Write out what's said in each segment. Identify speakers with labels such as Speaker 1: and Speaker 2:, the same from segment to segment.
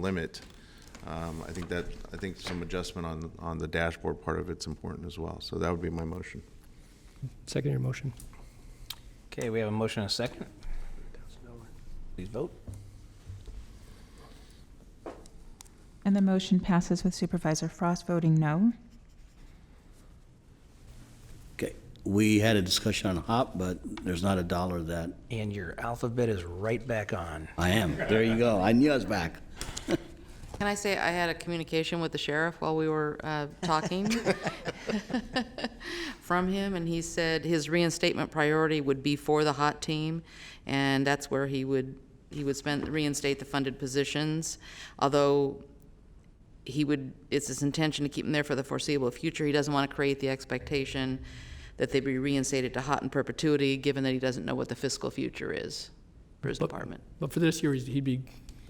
Speaker 1: limit. Um, I think that, I think some adjustment on, on the dashboard part of it's important as well. So that would be my motion.
Speaker 2: Second your motion.
Speaker 3: Okay, we have a motion and a second. Please vote.
Speaker 4: And the motion passes with Supervisor Frost voting no.
Speaker 5: Okay, we had a discussion on HOP, but there's not a dollar that,
Speaker 3: And your alphabet is right back on.
Speaker 5: I am, there you go, I knew I was back.
Speaker 6: Can I say I had a communication with the sheriff while we were uh, talking from him, and he said his reinstatement priority would be for the hot team, and that's where he would, he would spend, reinstate the funded positions, although he would, it's his intention to keep them there for the foreseeable future. He doesn't want to create the expectation that they be reinstated to hot in perpetuity, given that he doesn't know what the fiscal future is for his
Speaker 2: But-
Speaker 6: department.
Speaker 2: But for this year, he's- he'd be.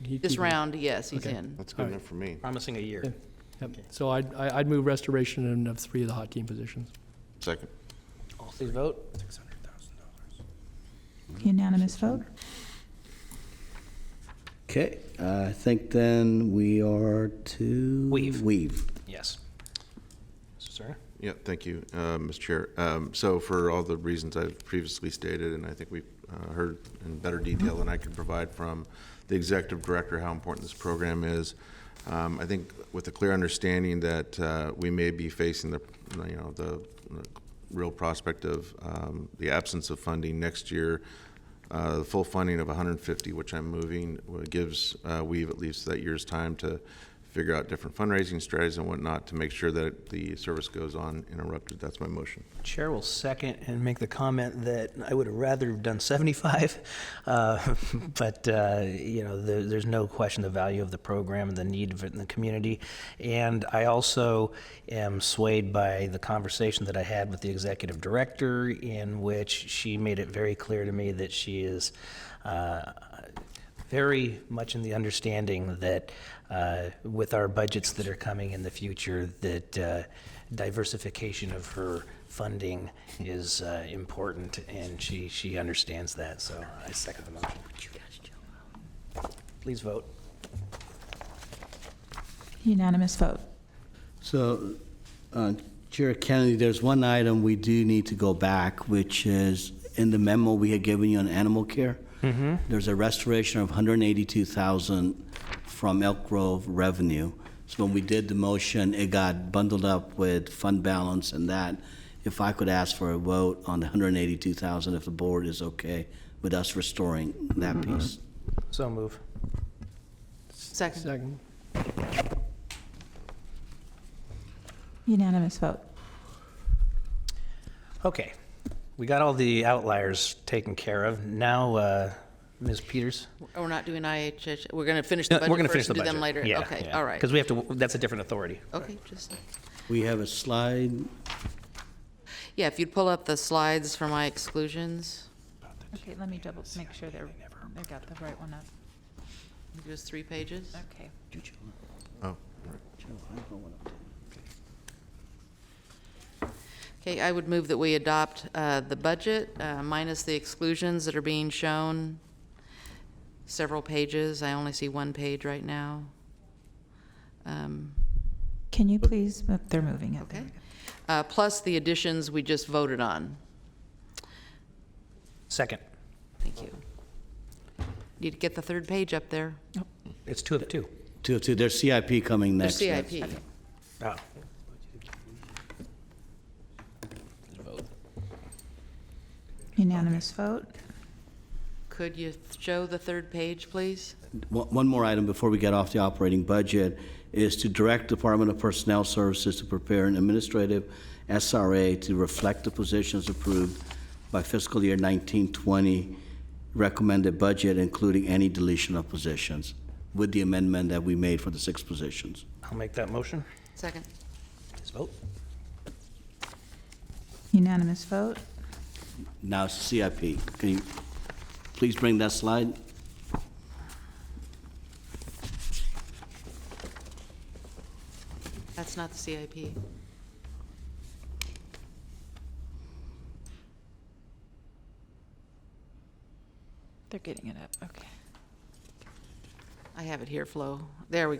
Speaker 2: he'd
Speaker 6: This
Speaker 2: be-
Speaker 6: round, yes, he's
Speaker 2: Okay.
Speaker 6: in.
Speaker 1: That's good enough for me.
Speaker 3: Promising a year.
Speaker 2: Yep. So I'd, I- I'd move restoration and of three of the hot team positions.
Speaker 1: Second.
Speaker 3: All please vote.
Speaker 4: Unanimous vote.
Speaker 5: Okay, I think then we are to.
Speaker 3: Weave.
Speaker 5: Weave.
Speaker 3: Yes. Mr. Serna?
Speaker 1: Yeah, thank you, uh, Mr. Chair. Um, So for all the reasons I've previously stated, and I think we've uh, heard in better detail than I could provide from the executive director how important this program is, um, I think with a clear understanding that uh, we may be facing the, you know, the the real prospect of um, the absence of funding next year, uh, the full funding of 150, which I'm moving, uh, gives uh, Weave at least that year's time to figure out different fundraising strategies and whatnot to make sure that the service goes on interrupted. That's my motion.
Speaker 3: Chair will second and make the comment that I would have rather have done 75, uh, but, uh, you know, there- there's no question the value of the program and the need of it in the community. And I also am swayed by the conversation that I had with the executive director, in which she made it very clear to me that she is uh, very much in the understanding that uh, with our budgets that are coming in the future, that uh, diversification of her funding is uh, important, and she, she understands that, so I second the motion. Please vote.
Speaker 4: Unanimous vote.
Speaker 5: So, uh, Chair Kennedy, there's one item we do need to go back, which is in the memo we had given you on animal care. There's a restoration of 182,000 from Elk Grove revenue. So when we did the motion, it got bundled up with fund balance and that. If I could ask for a vote on the 182,000, if the board is okay with us restoring that piece.
Speaker 3: So move.
Speaker 6: Second.
Speaker 2: Second.
Speaker 4: Unanimous vote.
Speaker 3: Okay, we got all the outliers taken care of. Now, uh, Ms. Peters?
Speaker 6: We're not doing IHH, we're going to finish the
Speaker 3: No, We're
Speaker 6: budget
Speaker 3: gonna finish
Speaker 6: first
Speaker 3: the
Speaker 6: and do
Speaker 3: budget.
Speaker 6: them later? Okay, all right.
Speaker 3: Because we have to, that's a different authority.
Speaker 6: Okay, just,
Speaker 5: We have a slide.
Speaker 6: yeah, if you'd pull up the slides for my exclusions,
Speaker 4: Okay, let me double, make sure they're, I got the right one up.
Speaker 6: I think it was three pages.
Speaker 4: Okay.
Speaker 1: Oh.
Speaker 6: Okay, I would move that we adopt uh, the budget uh, minus the exclusions that are being shown. Several pages, I only see one page right now. Um,
Speaker 4: Can you please, mo- they're moving it.
Speaker 6: Okay. uh, Plus the additions we just voted on.
Speaker 3: Second,
Speaker 6: Thank you. Need to get the third page up there.
Speaker 3: it's two of two.
Speaker 5: To, to, there's CIP coming
Speaker 6: Their
Speaker 5: next.
Speaker 6: CIP.
Speaker 3: Oh.
Speaker 4: Unanimous vote.
Speaker 6: Could you show the third page, please?
Speaker 5: One one more item before we get off the operating budget is to direct Department of Personnel Services to prepare an administrative SRA to reflect the positions approved by fiscal year 1920 recommended budget, including any deletion of positions, with the amendment that we made for the six positions.
Speaker 3: I'll make that motion.
Speaker 6: Second.
Speaker 3: Please vote.
Speaker 4: Unanimous vote.
Speaker 5: Now it's CIP. Can you please bring that slide?
Speaker 6: That's not the CIP.
Speaker 4: They're getting it up, okay.
Speaker 6: I have it here, Flo. There we